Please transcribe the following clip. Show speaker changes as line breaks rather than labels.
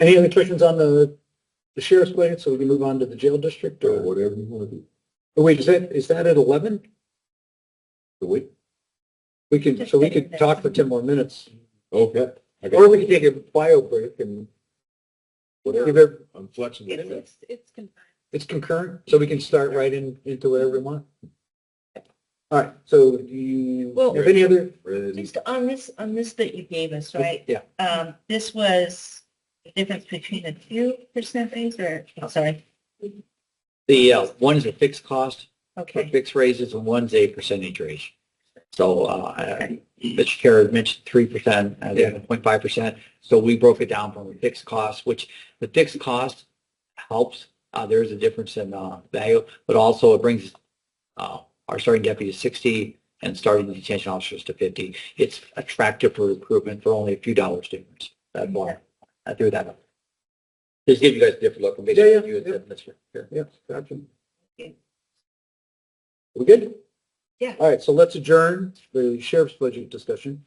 Any other questions on the the sheriff's budget, so we can move on to the jail district
or
or,
whatever you want to do.
oh, wait, is that, is that at 11?
The week?
We could, so we could
Just
talk for 10 more minutes,
Okay. I got
or we
you.
could take a bio break and
Whatever.
give it,
I'm flexible.
It's, it's, it's confined.
it's concurrent, so we can start right in, into whatever we want. All right, so do you
Well-
have any other?
Ready.
Just on this, on this that you gave us, right?
Yeah,
Um, this was the difference between a two percent raise or, I'm sorry,
The, uh, one's a fixed cost for
okay.
fixed raises and one's a percentage raise. So, uh, I- Mr. Chair had mentioned three percent, uh, and
Yeah.
then point five percent. So we broke it down from a fixed cost, which the fixed cost helps. Uh, there is a difference in, uh, value, but also it brings, uh, our starting deputy to sixty and starting detention officers to fifty. It's attractive for recruitment for only a few dollars difference. That's why I threw that up. Just give you guys a different look. and
Yeah, yeah,
basically you had
yeah.
said, Mr. Chair.
yeah, gotcha.
Okay.
We good?
Yeah.
All right, so let's adjourn the sheriff's budget discussion.